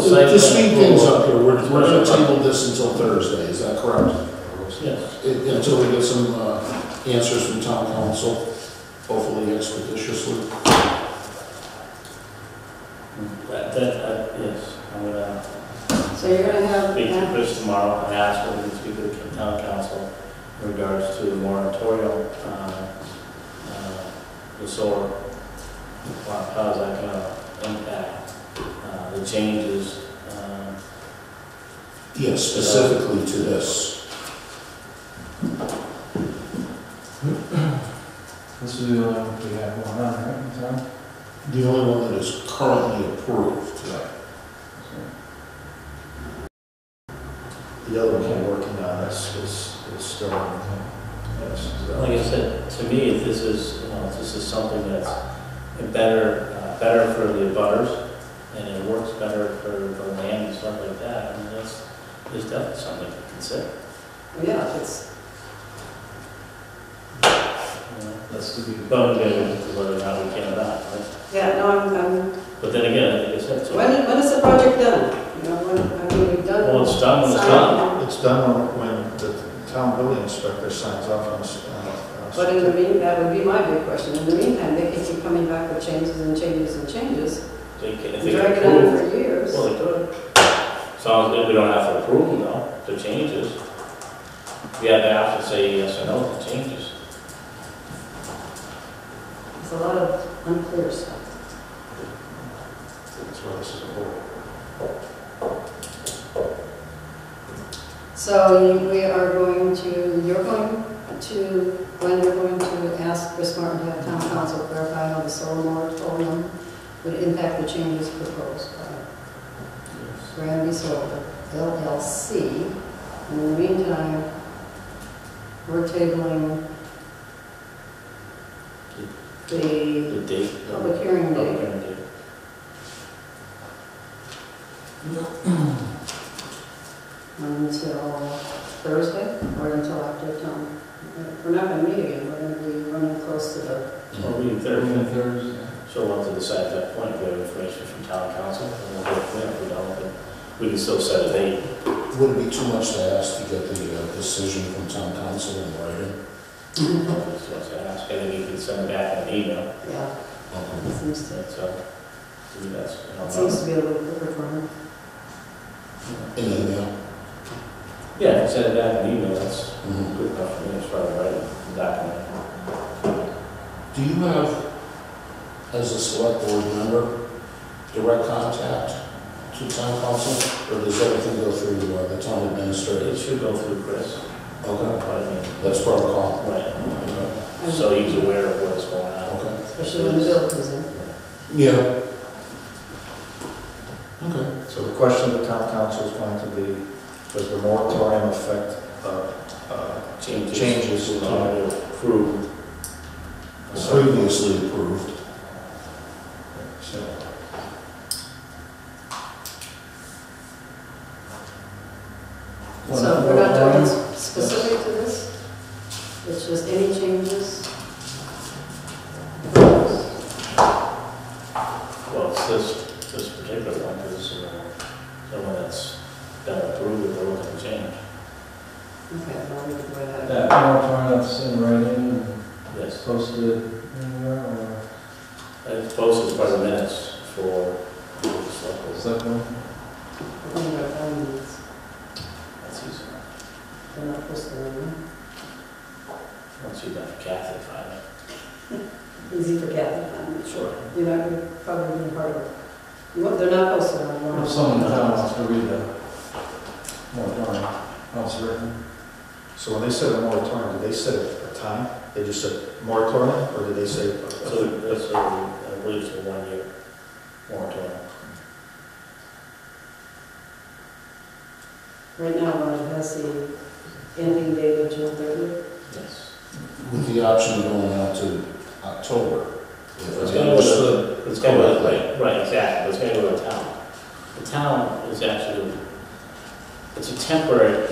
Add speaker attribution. Speaker 1: site
Speaker 2: to speed
Speaker 1: plan
Speaker 2: things
Speaker 1: approval.
Speaker 2: up here, we're, we're gonna
Speaker 1: Right.
Speaker 2: table this until Thursday, is that correct?
Speaker 1: Yes,
Speaker 2: It- Until we get some, uh, answers from town council, hopefully expeditiously.
Speaker 1: that, that, uh, yes, I'm gonna
Speaker 3: So you're gonna have,
Speaker 1: speak to Chris tomorrow and ask whether we can speak to the town council in regards to the moratorium, uh, uh, the solar, how how is that gonna impact, uh, the changes, um,
Speaker 2: Yes, specifically to this.
Speaker 4: This is the only one we have going on, right, in town?
Speaker 2: The only one that is currently approved.
Speaker 5: The other one we're working on is, is, is still, yes. so-
Speaker 1: Like I said, to me, if this is, you know, if this is something that's better, uh, better for the butters, and it works better for the land and stuff like that, I mean, that's, there's definitely something to consider,
Speaker 3: yeah, it's,
Speaker 1: you know?
Speaker 4: That's to be.
Speaker 1: But we're gonna look at whether or not we can or not, right?
Speaker 3: yeah, no, I'm, I'm,
Speaker 1: But then again, like I said, so, well,
Speaker 3: when, when is the project done? You know, when, I mean, we've done.
Speaker 1: it's done, when it's done.
Speaker 3: Signed.
Speaker 5: It's done when when the town building inspector signs off on s- on. on-
Speaker 3: But in the meantime, that would be my big question, in the meantime, they can keep coming back with changes and changes and changes,
Speaker 1: They can, if
Speaker 3: and
Speaker 1: they
Speaker 3: drag
Speaker 1: can
Speaker 3: it on
Speaker 1: approve,
Speaker 3: for years.
Speaker 1: well, they could. Sounds good, we don't have to approve them though, the changes. We have to have to say yes or no to changes.
Speaker 3: It's a lot of unclear stuff.
Speaker 5: That's why this is a whole.
Speaker 3: So you- we are going to, you're going to, when you're going to ask Chris Martin to have town council clarify how the solar moratorium would impact the changes proposed by Granby Solar LLC. In the meantime, we're tabling the
Speaker 1: The date.
Speaker 3: public hearing
Speaker 1: Public
Speaker 3: date.
Speaker 1: hearing date.
Speaker 3: until Thursday or until after town. We're not going to meet again, we're going to be running close to the,
Speaker 1: Well, we
Speaker 4: Thursday,
Speaker 1: third,
Speaker 4: Thursday.
Speaker 1: so we'll have to decide at that point, if we have information from town council, and we'll go from there, if we don't, then we can still set a date.
Speaker 2: Would it be too much to ask to get the uh, decision from town council in writing?
Speaker 3: Mm-hmm.
Speaker 1: So I said, ask, and then you can send back an email,
Speaker 3: yeah,
Speaker 2: Okay.
Speaker 3: it seems to,
Speaker 1: and so, I mean, uh, that's, you
Speaker 3: it
Speaker 1: know,
Speaker 3: seems to be a little quicker for her.
Speaker 2: In email?
Speaker 1: Yeah, if you send it back an email, that's
Speaker 2: Mhm.
Speaker 1: good enough for me, as far as writing the document.
Speaker 2: Do you have, as a select board member, direct contact to town council? Or does everything go through uh, the town
Speaker 1: It
Speaker 2: administrator?
Speaker 1: should go through Chris,
Speaker 2: Okay,
Speaker 1: but I mean,
Speaker 2: that's protocol.
Speaker 1: right,
Speaker 2: Okay.
Speaker 1: so he's aware of what's going on.
Speaker 2: Okay.
Speaker 3: Especially when the bill comes in.
Speaker 2: Yeah. Okay.
Speaker 5: So the question of the town council is going to be, does the moratorium affect, uh, uh,
Speaker 1: Changes.
Speaker 5: Changes.
Speaker 1: Uh, approved.
Speaker 2: Previously approved.
Speaker 5: so,
Speaker 3: So we're not talking s- specific to this? It's just any changes?
Speaker 1: Well, it's this, this particular one, because the one that's been approved, they're looking to change.
Speaker 3: Okay, I'll leave it the way that is.
Speaker 4: That moratorium that's in writing and
Speaker 1: Yes,
Speaker 4: posted anywhere or
Speaker 1: and it's posted by the minutes for the select board.
Speaker 4: select board?
Speaker 3: We're going to go down and it's-
Speaker 1: That's easy.
Speaker 3: they're not supposed to know.
Speaker 1: Once you've got Kathy filing.
Speaker 3: Easy for Kathy.
Speaker 1: Sure.
Speaker 3: You're not going to probably be part of it. Well, They're not supposed to know.
Speaker 4: If someone in town wants to read the moratorium, how it's written.
Speaker 5: so when they said a moratorium, did they set a time? They just said moratorium, or did they say?
Speaker 1: So that's, a- I believe it's a one-year moratorium.
Speaker 3: Right now, uh, it has the ending date of June 30th.
Speaker 1: Yes.
Speaker 2: With the option of going out to October.
Speaker 1: It's gonna go to, it's gonna go, right, right, exactly, it's gonna go to the town. The town is actually, it's a temporary